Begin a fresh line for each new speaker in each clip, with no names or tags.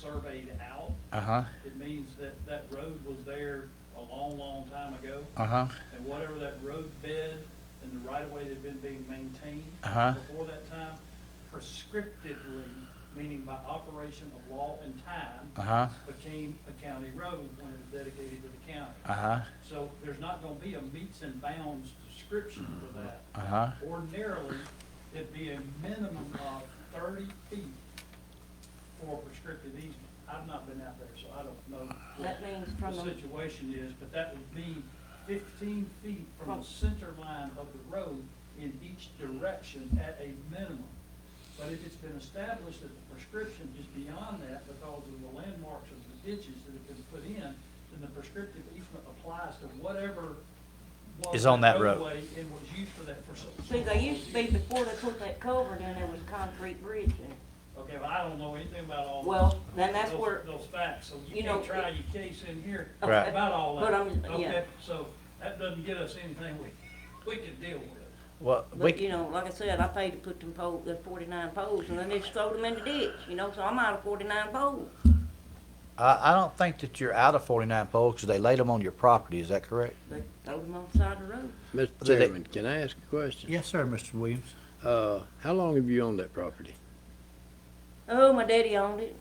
surveyed out,
Uh-huh,
it means that that road was there a long, long time ago.
uh-huh,
And whatever that road bed and the right of way that had been being maintained
Uh-huh.
before that time, prescriptively, meaning by operation of law and time,
uh-huh,
became a county road when it was dedicated to the county.
uh-huh,
So there's not gonna be a meets and bounds description for that.
uh-huh,
Ordinarily, it'd be a minimum of thirty feet for a prescriptive easement. I've not been out there, so I don't know what
That means from
the
the,
situation is, but that would be fifteen feet from the
From-
center line of the road in each direction at a minimum. But if it's been established that the prescription is beyond that because of the landmarks of the ditches that have been put in, then the prescriptive easement applies to whatever was
Is on that road.
roadway and was used for that for so.
see, they used to be before they put that culvert in, there was a concrete bridge there.
Okay, but I don't know anything about all.
Well, then that's
those-
where-
Those facts, so you
You know,
can't try your case in here
Right.
about all that.
But I'm- yeah.
Okay, so that doesn't get us anything we, we can deal with.
well,
But, you
we,
know, like I said, I paid to put them pole, the forty-nine poles, and then they just throw them in the ditch, you know, so I'm out of forty-nine poles.
I, I don't think that you're out of forty-nine poles, 'cause they laid them on your property, is that correct?
They throw them on the side of the road.
Mr.
Do they-
Chairman, can I ask a question?
Yes, sir, Mr. Williams.
Uh, how long have you owned that property?
Oh, my daddy owned it.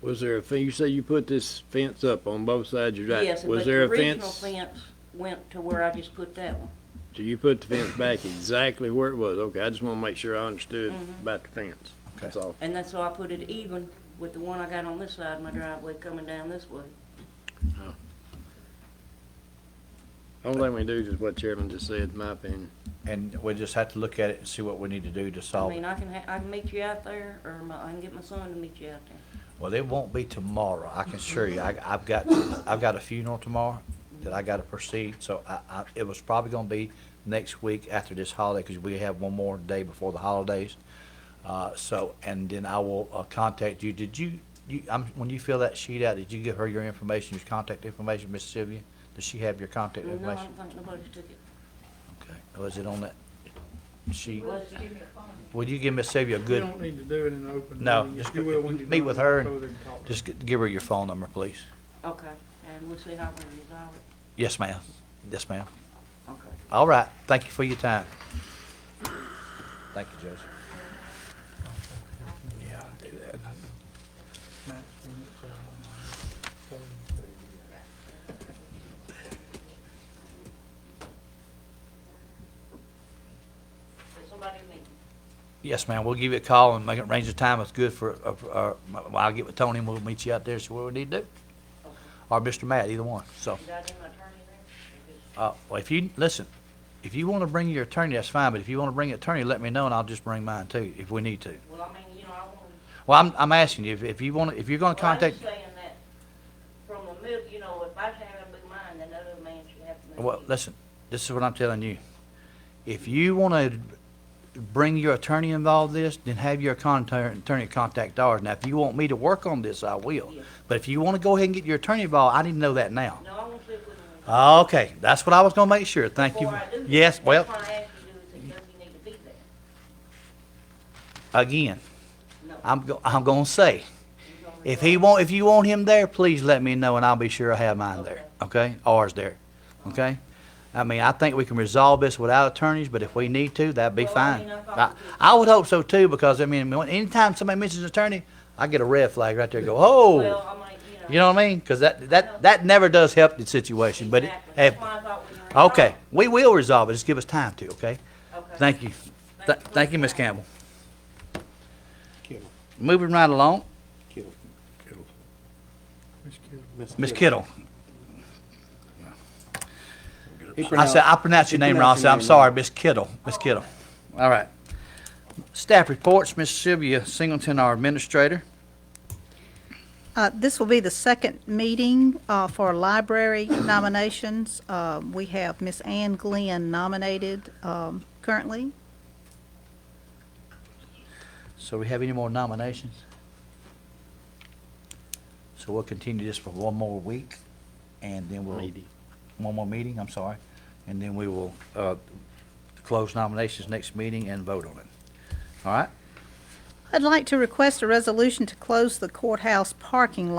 Was there a fence, you say you put this fence up on both sides of your
Yes,
drive?
but
Was
the
there a
original
fence?
fence went to where I just put that one.
So you put the fence back exactly where it was? Okay, I just wanna make sure I understood
Mm-hmm.
about the fence. That's all.
And that's why I put it even with the one I got on this side of my driveway coming down this way.
Only thing we can do is just what Chairman just said, in my opinion.
And we just have to look at it and see what we need to do to
I
solve
mean,
it.
I can ha- I can meet you out there, or my, I can get my son to meet you out there.
Well, it won't be tomorrow, I can assure you, I, I've got, I've got a funeral tomorrow that I gotta proceed, so I, I, it was probably gonna be next week after this holiday, 'cause we have one more day before the holidays. Uh, so, and then I will, uh, contact you, did you, you, um, when you fill that sheet out, did you give her your information, your contact information, Miss Sylvia? Does she have your contact
No, I
information?
don't think nobody's took it.
Okay, was it on that sheet?
Was
Would you give Miss Sylvia a
You
good,
don't need to do it in an open meeting.
No, just
You will when you
meet
know
with
them,
her
go
and
there and talk to
just g- give her your phone number, please?
Okay, and we'll see how we resolve it.
Yes, ma'am, yes, ma'am.
Okay.
All right, thank you for your time. Thank you, Joseph. Yeah, I'll do that.
them.
Somebody meet.
Yes, ma'am, we'll give you a call and make it arrange the time that's good for, uh, for, uh, well, I'll get with Tony and we'll meet you out there, so what we need to do. Or Mr. Matt, either one, so.
Did I do my attorney there?
Uh, well, if you, listen, if you want to bring your attorney, that's fine, but if you want to bring an attorney, let me know and I'll just bring mine too, if we need to.
Well, I mean, you know, I want.
Well, I'm, I'm asking you, if, if you want, to if you're gonna
Well, I'm
contact,
just saying that from the middle, you know, if I should have a big mind, then other man should have to.
well, listen, this is what I'm telling you. If you wanna bring your attorney involved in this, then have your contact, attorney contact ours. Now, if you want me to work on this, I will.
Yeah.
But if you wanna go ahead and get your attorney involved, I need to know that now.
No, I want to see if we can.
Okay, that's what I was gonna make sure, thank you.
Before I do that,
Yes, well,
That's why I asked you to do it, because you need to be there.
again,
No.
I'm, go- I'm gonna say,
you're gonna
If
resolve
he want, if you want him there, please let me know and I'll be sure I have mine there, okay? Ours there, okay? I mean, I think we can resolve this without attorneys, but if we need to, that'd be
Well, I
fine.
mean, I thought
I,
we did.
I would hope so too, because I mean, when- anytime somebody mentions attorney, I get a red flag right there, go,
it.
oh!
Well, I mean, you know.
You know what I mean? Cause that,
No.
that, that never does help the situation, but it,
Exactly.
hey,
That's why I thought we were
okay, we will resolve it, just give us time to, okay?
involved. Okay.
Thank you. Th- Thank you, Ms. Campbell.
Kittle.
Moving right along,
Kittle. Kittle.
Ms. Kittle.
Ms. Kittle.
He
I said, I pronounced your
he
name wrong, I
pronounced
said,
your
I'm
name
sorry,
wrong.
Miss Kittle, Miss Kittle. All right. Staff reports, Miss Sylvia Singleton, our administrator.
Uh, This will be the second meeting uh, for library nominations. Uh, We have Miss Ann Glenn nominated um, currently.
So we have any more nominations? So we'll continue this for one more week, and then we'll.
Meeting.
One more meeting, I'm sorry, and then we will, uh, close nominations next meeting and vote on it. All right?
I'd like to request a resolution to close the courthouse parking lot.